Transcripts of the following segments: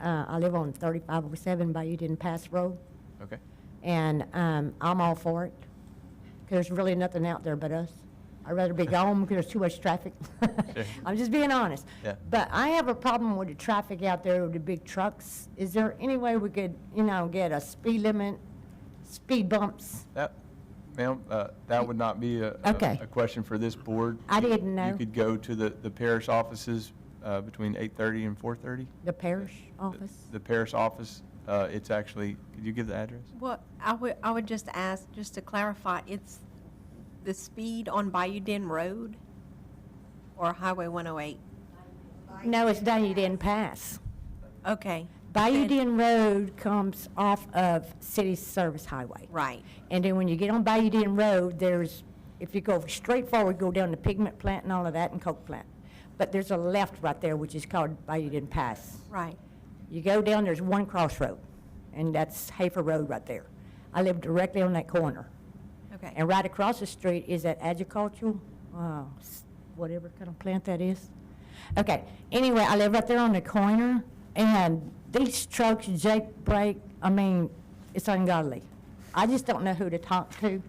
Uh, I live on 3507 Bayou Didn't Pass Road, Okay. and um, I'm all for it. 'Cause There's really nothing out there but us. I'd rather be gone because there's too much traffic. Sure. I'm just being honest. Yeah. But I have a problem with the traffic out there with the big trucks. Is there any way we could, you know, get a speed limit, speed bumps? That, ma'am, uh, that would not be a, a- Okay. a question for this board. I didn't You know. could go to the, the parish offices uh, between 8:30 and 4:30. The parish office? The parish office, uh, it's actually, could you give the address? Well, I would, I would just ask, just to clarify, it's the speed on Bayou Den Road or Highway 108? No, it's Bayou Didn't Pass. Okay. Bayou Den Then- Road comes off of City Service Highway. Right, And then when you get on Bayou Den Road, there's, if you go straight forward, go down to Pigment Plant and all of that and Coke Plant. But there's a left right there, which is called Bayou Den Pass. right. You go down, there's one crossroad, and that's Hafer Road right there. I live directly on that corner. Okay, And right across the street is that agricultural, uh, s- whatever kind of plant that is. Okay, anyway, I live right there on the corner, and these trucks jake brake, I mean, it's ungodly. I just don't know who to talk to.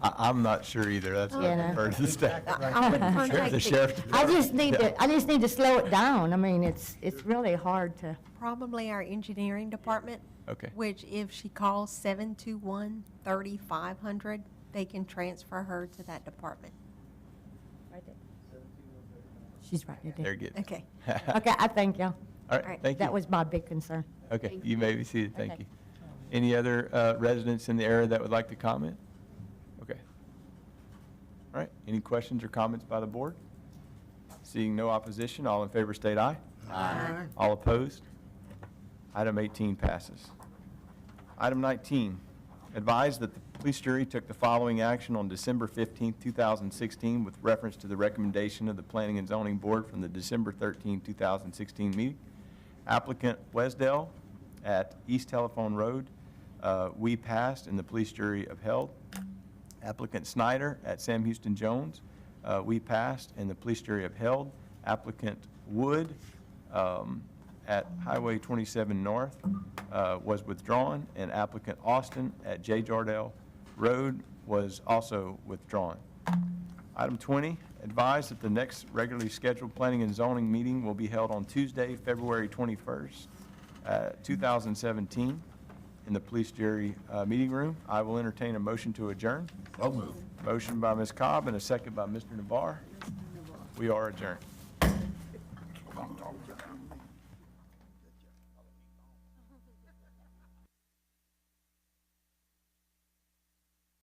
I, I'm not sure either. That's Yeah, not no. referred to the staff. I would contact The the- sheriff. I department. just need to, I just need to slow it down. I mean, it's, it's really hard to, probably our engineering department, Okay, which if she calls 721-3500, they can transfer her to that department. she's right there there. you go. Okay. Okay, I thank y'all. All All right, right. thank you. That was my big concern. Okay, you may be seated, thank Okay. you. Any other uh, residents in the area that would like to comment? Okay. All right, any questions or comments by the board? Seeing no opposition, all in favor state aye. Aye. All opposed? Item 18 passes. Item 19, advise that the police jury took the following action on December 15, 2016, with reference to the recommendation of the Planning and Zoning Board from the December 13, 2016 meeting. Applicant Wesdell at East Telephone Road, uh, we passed and the police jury upheld. Applicant Snyder at Sam Houston Jones, uh, we passed and the police jury upheld. Applicant Wood um, at Highway 27 North uh, was withdrawn, and applicant Austin at J. Jardell Road was also withdrawn. Item 20, advise that the next regularly scheduled planning and zoning meeting will be held on Tuesday, February 21st, uh, 2017, in the police jury uh, meeting room. I will entertain a motion to adjourn. So moved. Motion by Ms. Cobb and a second by Mr. Navar. We are adjourned.